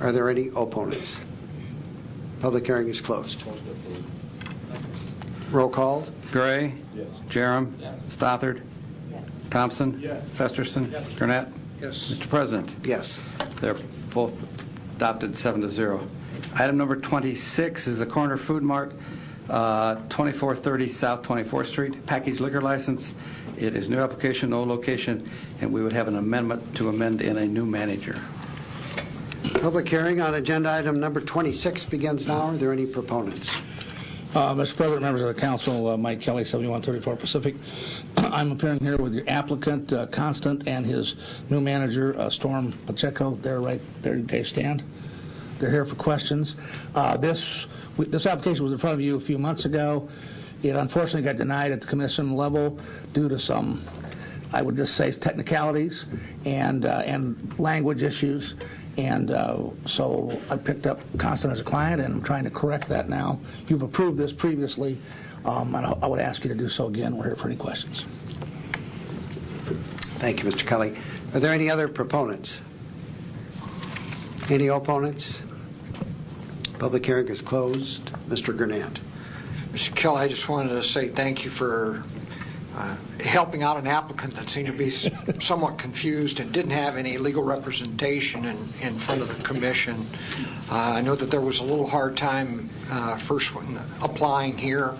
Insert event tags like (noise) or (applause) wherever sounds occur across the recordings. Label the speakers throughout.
Speaker 1: Are there any opponents? Public hearing is closed. Roll call.
Speaker 2: Gray. Yes. Jerem. Stothard. Thompson. Festerson. Gurnett.
Speaker 3: Yes.
Speaker 2: Mr. President,
Speaker 1: Yes.
Speaker 2: they're both adopted seven to zero. Item number 26 is the Corner Food Mart, uh, 2430 South 24th Street, package liquor license. It is new application, no location, and we would have an amendment to amend in a new manager.
Speaker 1: Public hearing on agenda item number 26 begins now. Are there any proponents?
Speaker 3: Uh, Mr. President, members of the council, uh, Mike Kelly, 7134 Pacific. (clears throat) I'm appearing here with the applicant, uh, Constant, and his new manager, uh, Storm Pacheco. They're right, there. they stand. They're here for questions. Uh, This, this application was in front of you a few months ago. It unfortunately got denied at the commission level due to some, I would just say, technicalities and, uh, and language issues. And uh, so I picked up Constant as a client, and I'm trying to correct that now. You've approved this previously, um, and I I would ask you to do so again. We're here for any questions.
Speaker 1: Thank you, Mr. Kelly. Are there any other proponents? Any opponents? Public hearing is closed. Mr. Gurnett.
Speaker 4: Mr. Kelly, I just wanted to say thank you for uh, helping out an applicant that seemed to be s- somewhat confused and didn't have any legal representation in, in front of the commission. Uh, I know that there was a little hard time uh, first when applying here,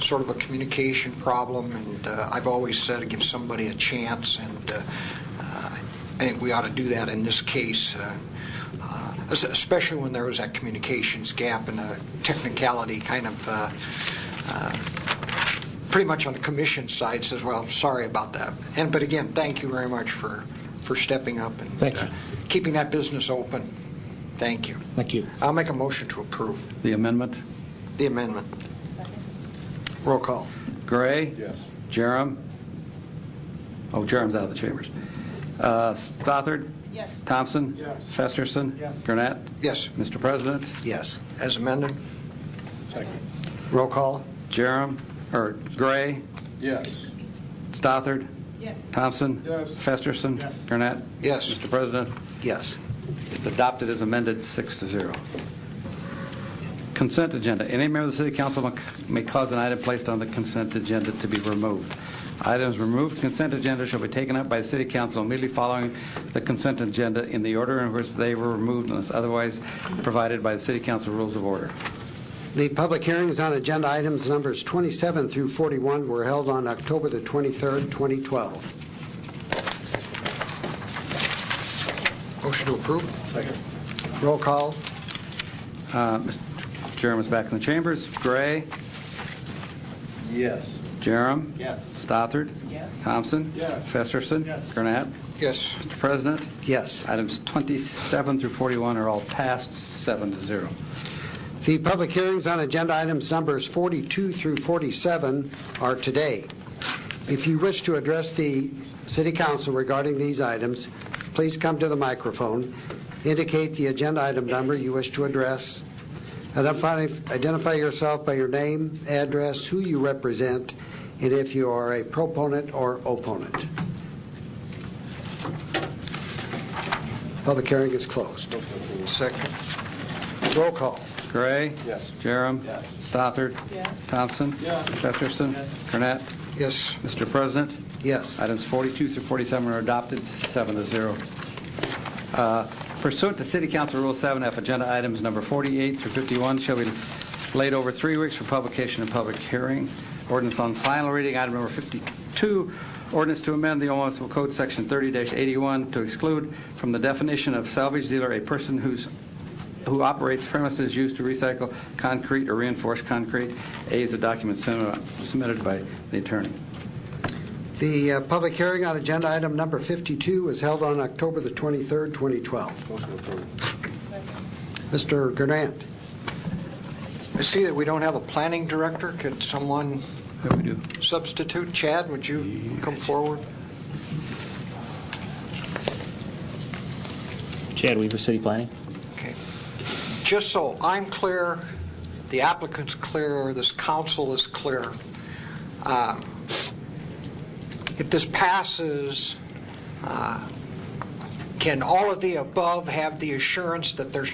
Speaker 4: sort of a communication problem, and uh, I've always said give somebody a chance, and uh, uh, I think we ought to do that in this case, uh, uh, es- especially when there was that communications gap and a technicality kind of, uh, uh, pretty much on the commission side says, well, sorry about that. And, but again, thank you very much for, for stepping up and
Speaker 3: Thank you.
Speaker 4: uh, keeping that business open. Thank you.
Speaker 3: Thank you.
Speaker 4: I'll make a motion to approve
Speaker 2: The amendment,
Speaker 4: the amendment.
Speaker 1: Roll call.
Speaker 2: Gray. Yes. Jerem. Oh, Jerem's out of the chambers. Uh, Stothard.
Speaker 5: Yes.
Speaker 2: Thompson. Yes. Festerson. Yes. Gurnett.
Speaker 4: Yes,
Speaker 2: Mr. President,
Speaker 1: Yes.
Speaker 4: as amended.
Speaker 1: Roll call.
Speaker 2: Jerem, or Gray,
Speaker 6: Yes.
Speaker 2: Stothard,
Speaker 5: Yes.
Speaker 2: Thompson.
Speaker 6: Yes.
Speaker 2: Festerson. Gurnett.
Speaker 4: Yes.
Speaker 2: Mr. President,
Speaker 1: Yes.
Speaker 2: it's adopted as amended, six to zero. Consent agenda. Any member of the city council may- may cause an item placed on the consent agenda to be removed. Items removed from consent agenda shall be taken up by the city council immediately following the consent agenda in the order in which they were removed unless otherwise provided by the city council rules of order.
Speaker 1: The public hearings on agenda items numbers 27 through 41 were held on October the 23rd, 2012.
Speaker 4: Motion to approve?
Speaker 1: Roll call.
Speaker 2: Uh, Mr. Jerem is back in the chambers. Gray?
Speaker 6: Yes.
Speaker 2: Jerem?
Speaker 6: Yes.
Speaker 2: Stothard?
Speaker 5: Yes.
Speaker 2: Thompson?
Speaker 6: Yes.
Speaker 2: Festerson? Gurnett?
Speaker 4: Yes.
Speaker 2: Mr. President,
Speaker 1: Yes.
Speaker 2: items 27 through 41 are all passed, seven to zero.
Speaker 1: The public hearings on agenda items numbers 42 through 47 are today. If you wish to address the city council regarding these items, please come to the microphone, indicate the agenda item number you wish to address, identify identify yourself by your name, address, who you represent, and if you are a proponent or opponent. Public hearing is closed.
Speaker 4: Second?
Speaker 1: Roll call.
Speaker 2: Gray?
Speaker 6: Yes.
Speaker 2: Jerem?
Speaker 6: Yes.
Speaker 2: Stothard?
Speaker 5: Yes.
Speaker 2: Thompson?
Speaker 6: Yes.
Speaker 2: Festerson? Gurnett?
Speaker 4: Yes.
Speaker 2: Mr. President,
Speaker 1: Yes.
Speaker 2: Items 42 through 47 are adopted, seven to zero. Uh, Pursuant to City Council Rule 7F, agenda items number 48 through 51 shall be laid over three weeks for publication and public hearing. Ordinance on final reading, item number 52, ordinance to amend the Omaha Municipal Code, Section 30-81, to exclude from the definition of salvage dealer a person whose who operates premises used to recycle concrete or reinforced concrete. A is a document submitted by the attorney.
Speaker 1: The uh, public hearing on agenda item number 52 was held on October the 23rd, 2012.
Speaker 6: Motion approved.
Speaker 1: Mr. Gurnett,
Speaker 4: I see that we don't have a planning director. Could someone
Speaker 2: What do we do?
Speaker 4: substitute? Chad, would you come forward?
Speaker 7: Chad Weaver, City Planning.
Speaker 4: Okay. Just so I'm clear, the applicant's clear, this council is clear, um, if this passes, uh, can all of the above have the assurance that there's